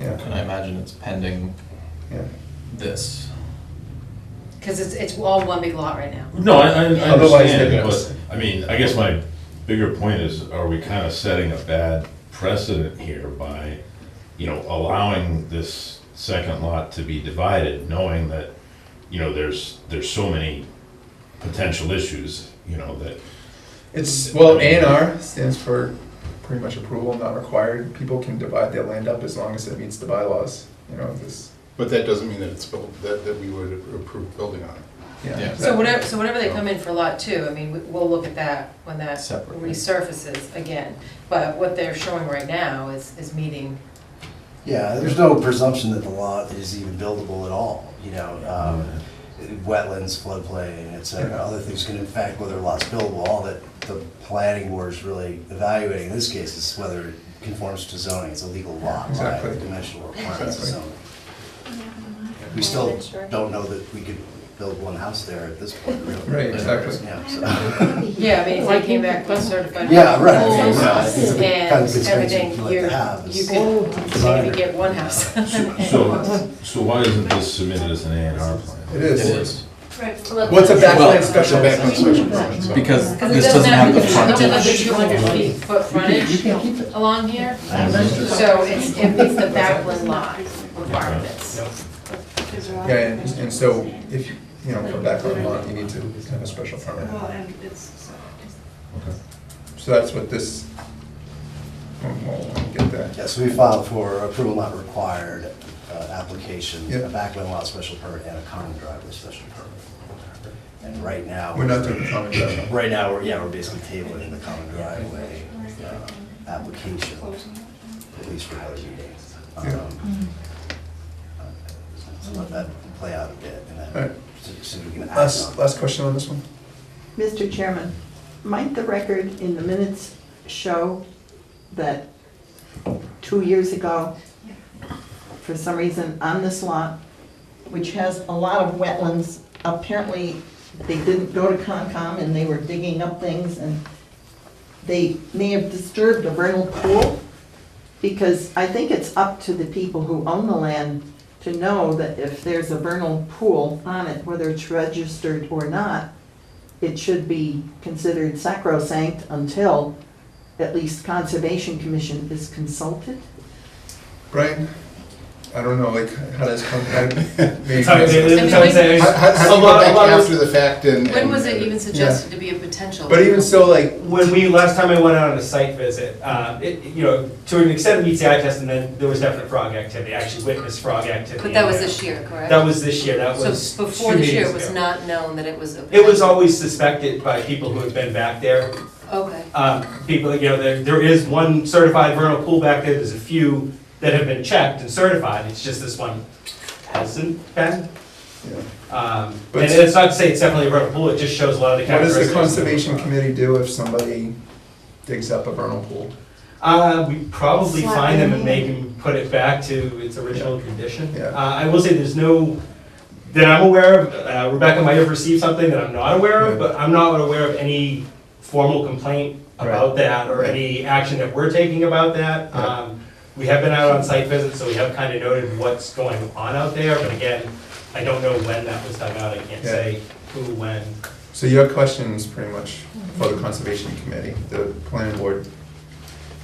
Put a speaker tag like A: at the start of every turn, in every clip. A: yeah,
B: And I imagine it's pending
A: yeah.
B: this.
C: Because it's, it's all one big lot right now.
D: No, I, I I
A: Otherwise,
D: understand,
A: they're-
D: but, I mean, I guess my bigger point is, are we kind of setting a bad precedent here by, you know, allowing this second lot to be divided, knowing that, you know, there's, there's so many potential issues, you know, that,
A: It's, well, A and R stands for pretty much approval not required. People can divide their land up as long as it meets the bylaws, you know, this,
E: But that doesn't mean that it's built, that, that we would approve building on it.
A: yeah.
B: Yeah.
C: So whatever, so whenever they come in for lot two, I mean, we- we'll look at that when that
B: Separately.
C: resurfaces again. But what they're showing right now is, is meeting,
F: Yeah, there's no presumption that the lot is even buildable at all, you know, um, wetlands, floodplain, et cetera, other things can affect whether a lot's buildable, all that the planning board is really evaluating in this case is whether it conforms to zoning, it's a legal lot, right,
A: Exactly.
F: with dimensional requirements of
A: Exactly.
F: zoning. We still don't know that we could build one house there at this point, really.
A: Right, exactly.
F: Yeah, so-
C: yeah, I mean, if they came back with certified.
F: Yeah, right, I mean,
C: approvals
F: yeah, it's the kind of
C: And
F: constraints
C: everything,
F: you'd like to
C: you're,
F: have is-
C: you could, you
F: Designer.
C: could get one house.
D: so, so why isn't this submitted as an A and R plan?
A: It
B: It
A: is.
B: is,
A: What's a backland
B: Well-
A: special
E: Backland
A: permit?
E: special permit, so-
B: because
C: Because it
B: this doesn't have the
C: it doesn't have the
B: frontage.
C: two hundred feet foot
F: You
C: frontage
F: can keep it.
C: along here. So it's, it meets the backland lot requirements.
A: Yeah, and, and so if, you you know, for backland lot, you need to have a special permit.
G: Well, and it's,
D: Okay.
A: So that's what this, oh, we'll- we'll get that.
F: Yeah, so we filed for approval not required uh, application,
A: Yeah.
F: a backland lot special permit, and a common driveway special permit. And right now.
A: We're not doing the common driveway.
F: Right now, we're, yeah, we're basically tabling the common driveway uh,
G: um,
F: application, at least for our meeting.
A: Yeah.
F: Um, uh, So let that play out a bit, and
A: Right.
F: then, so- so we can act
A: Last,
F: on-
A: last question on this one?
H: Mr. Chairman, might the record in the minutes show that two years ago, for some reason, on this lot, which has a lot of wetlands, apparently they didn't go to Concom and they were digging up things and they may have disturbed a vernal pool? Because I think it's up to the people who own the land to know that if there's a vernal pool on it, whether it's registered or not, it should be considered sacrosanct until at least Conservation Commission is consulted?
A: Brian? I don't know, like, how does, con- how- maybe-
I: Sorry, they- they-
C: I mean,
I: sorry,
C: when-
I: they-
E: How, how, how do
I: a
E: you go
I: lot- a
E: back
I: lot of-
E: after the fact and?
C: When
E: and-
C: was it even suggested to be a potential?
A: But even so, like,
I: When we, last time I went out on a site visit, uh, it, you know, to an extent meets the eye test, and then there was definite frog activity, I actually witnessed frog activity.
C: But that was
I: in
C: this
I: there.
C: year, correct?
I: That was this year, that was
C: So before
I: two
C: this year,
I: meetings
C: it was
I: ago.
C: not known that it was a.
I: It was always suspected by people who had been back there,
C: Okay,
I: um, people, you know, there, there is one certified vernal pool back there, there's a few that have been checked and certified, it's just this one hasn't been.
A: yeah.
I: Um,
A: But-
I: and it's not to say it's definitely a vernal pool, it just shows a lot of the
A: what does
I: characteristics.
A: the conservation committee do if somebody digs up a vernal pool?
I: Uh, we probably
G: Slap
I: find them and
G: in.
I: make them put it back to its original condition.
A: Yeah.
I: Uh, I will say there's no, that I'm aware of, uh, Rebecca might have received something that I'm not aware
A: Yeah.
I: of, but I'm not aware of any formal complaint
A: Right.
I: about that or
A: Right.
I: any action that we're taking about that.
A: Yeah.
I: Um, we have been out on site visits, so we have kind of noted what's going on out there, but again, I don't know when that was done out, I can't
A: Yeah.
I: say who, when.
A: So your question is pretty much for the conservation committee, the planning board.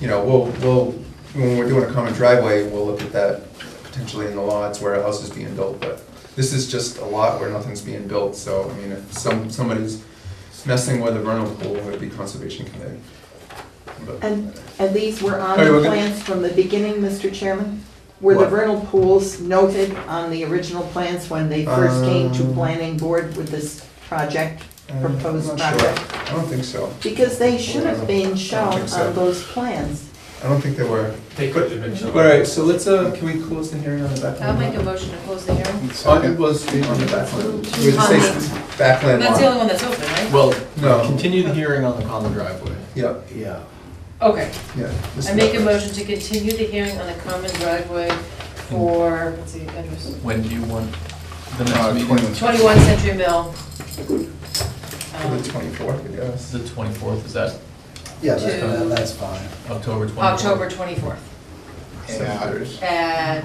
A: You know, we'll, we'll, when we're doing a common driveway, we'll look at that potentially in the lots where a house is being built, but this is just a lot where nothing's being built, so, I mean, if some, somebody's messing with a vernal pool, it would be conservation committee. But-
H: And, and these were on
A: Alright,
H: the
A: we're good.
H: plans from the beginning, Mr. Chairman? Were the
A: What?
H: vernal pools noted on the original plans when they first came to
A: Um,
H: planning board with this project,
A: I'm
H: proposed
A: not sure.
H: project?
A: I don't think so.
H: Because they should have been
A: I don't
H: shown
A: think so.
H: on those plans.
A: I don't think they were.
I: They could have been.
A: All
I: shown.
A: right, so let's, uh, can we close the hearing on the back?
C: I'll
A: one?
C: make a motion to close the hearing.
A: On, it was on the back one. You would say backland
C: That's the
A: lot.
C: only one that's open, right?
B: Well,
A: No,
B: continue the hearing on the common driveway.
A: yeah,
F: Yeah.
C: Okay,
A: yeah. this
C: I
A: is
C: make a
A: backland.
C: motion to continue the hearing on the common driveway for, let's see, address,
B: When do you want the
A: Uh,
B: next meeting?
A: 20.
C: twenty-one Century Mill.
A: For the
C: um,
A: twenty-fourth, I guess.
B: The twenty-fourth, is that
F: Yeah,
C: To-
F: that's, that's fine.
B: October twenty-fourth?
C: October twenty-fourth
A: Seven thirty.
C: at